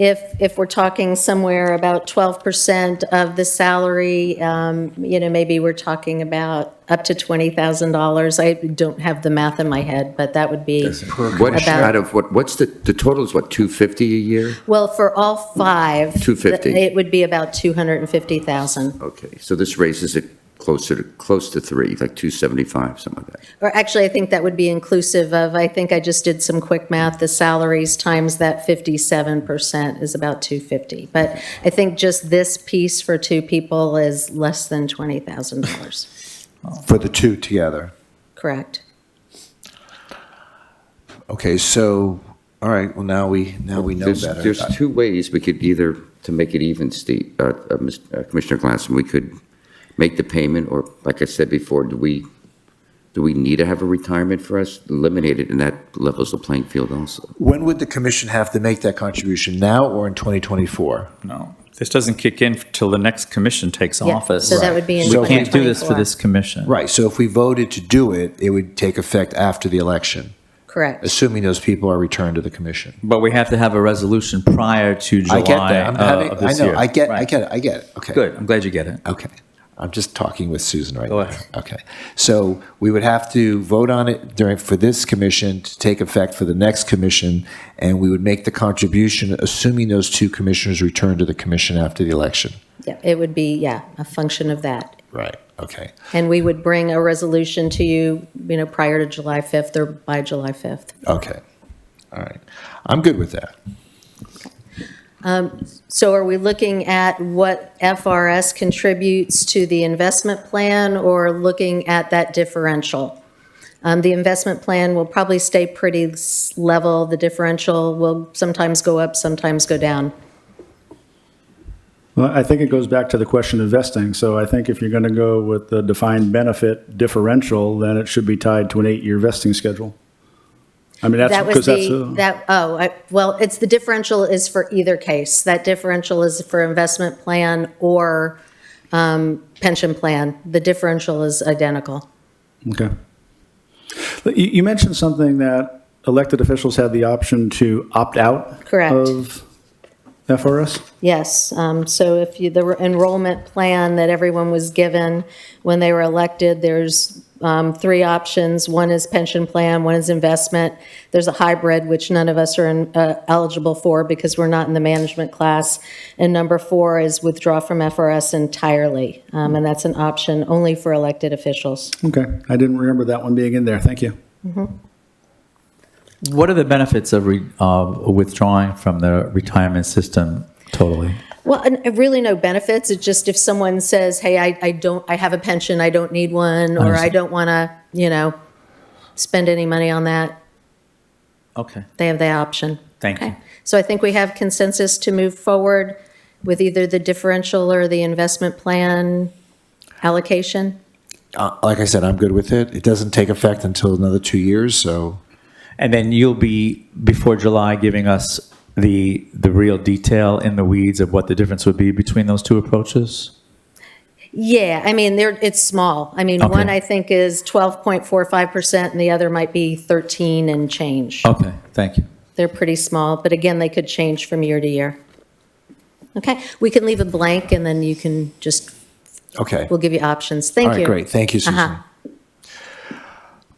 if, if we're talking somewhere about 12% of the salary, um, you know, maybe we're talking about up to $20,000. I don't have the math in my head, but that would be, What, About- out of, what, what's the, the total is what, 250 a year? well, for all five. 250. It would be about 250,000. Okay, so this raises it closer to, close to three, like 275, something like that. Or actually, I think that would be inclusive of, I think I just did some quick math, the salaries times that 57% is about 250. But I think just this piece for two people is less than $20,000, for the two together. correct? Okay, so, all right, well, now we, now we know There's- better. There's two ways we could either, to make it even, Steve, uh, uh, Mis- uh, Commissioner Glassman, we could make the payment, or like I said before, do we, do we need to have a retirement for us? Eliminate it, and that levels the playing field also. When would the commission have to make that contribution, now or in 2024? No, this doesn't kick in till the next commission takes Yeah, office. so that would be in We can't do this for 2024. this commission. Right, so if we voted to do it, it would take effect after the election, Correct. assuming those people are returned to the commission. But we have to have a resolution prior to July I get that. I'm uh, having, of I this know, year. I get, I Right. get it, I get it, okay. Good, I'm glad you get it. Okay. I'm just talking with Susan right Go now. ahead. Okay. So we would have to vote on it during, for this commission to take effect for the next commission, and we would make the contribution, assuming those two commissioners return to the commission after the election. Yeah, It would be, yeah, a function of that. Right. Okay. And we would bring a resolution to you, you know, prior to July 5th or by July 5th. Okay. All right. I'm good with that. So are we looking at what FRS contributes to the investment plan or looking at that differential? Um, The investment plan will probably stay pretty s- level. The differential will sometimes go up, sometimes go down. Well, I think it goes back to the question of vesting. So I think if you're going to go with the defined benefit differential, then it should be tied to an eight-year vesting schedule. I mean, that's That was because that's, the, a- that, oh, I- well, it's, the differential is for either case. That differential is for investment plan or um, pension plan. The differential is identical. okay. But You, you mentioned something that elected officials had the option to opt out. Correct. Of FRS? Yes, um, so if you, the enrollment plan that everyone was given when they were elected, there's um, three options. One is pension plan, one is investment. There's a hybrid, which none of us are in- uh, eligible for because we're not in the management class. And number four is withdraw from FRS entirely, Um, and that's an option only for elected officials. Okay, I didn't remember that one being in there. Thank you. What are the benefits of re- of withdrawing from the retirement system totally? Well, and and really no benefits. It's just if someone says, hey, I, I don't, I have a pension, I don't need one, or I Understood. don't want to, you know, spend any money on that, Okay, they have the option. thank you. So I think we have consensus to move forward with either the differential or the investment plan allocation. Uh, Like I said, I'm good with it. It doesn't take effect until another two years, so And then you'll be, before July, giving us the, the real detail in the weeds of what the difference would be between those two approaches? Yeah, I mean, they're, it's small. I mean, Okay. one I think is 12.45% and the other might be 13 and change. Okay, thank you. They're pretty small, but again, they could change from year to year. Okay, we can leave a blank and then you can just, okay. we'll give you options. All Thank right, you. great. Thank you, Susan. Uh-huh.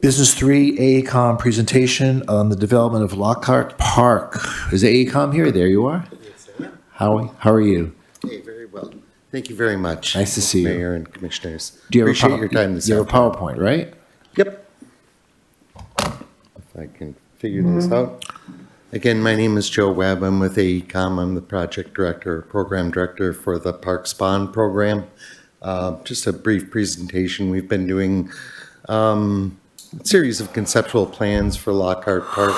Business three, E AECom presentation on the development of Lockhart Park. Is E AECom here? There you are. Howie, how are you? Hey, very well. Thank you very much. Nice to see you. Mayor and commissioners. Do you have a Appreciate pow- your time this You have a afternoon. PowerPoint, right? Yep. If I can figure this out. Again, my name is Joe Webb. I'm with AECom. I'm the project director, program director for the Parks Bond Program. Uh, Just a brief presentation. We've been doing um, a series of conceptual plans for Lockhart Park.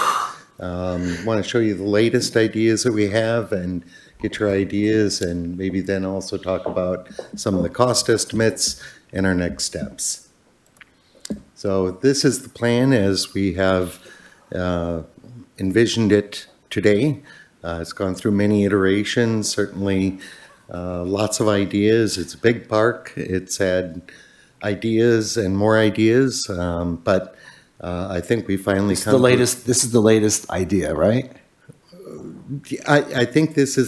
Want to show you the latest ideas that we have and get your ideas and maybe then also talk about some of the cost estimates and our next steps. So this is the plan as we have uh, envisioned it today. Uh, It's gone through many iterations, certainly uh, lots of ideas. It's a big park. It's had ideas and more ideas, um, but uh, I think we finally. This is the come to- latest, this is the latest idea, right? I, I think this is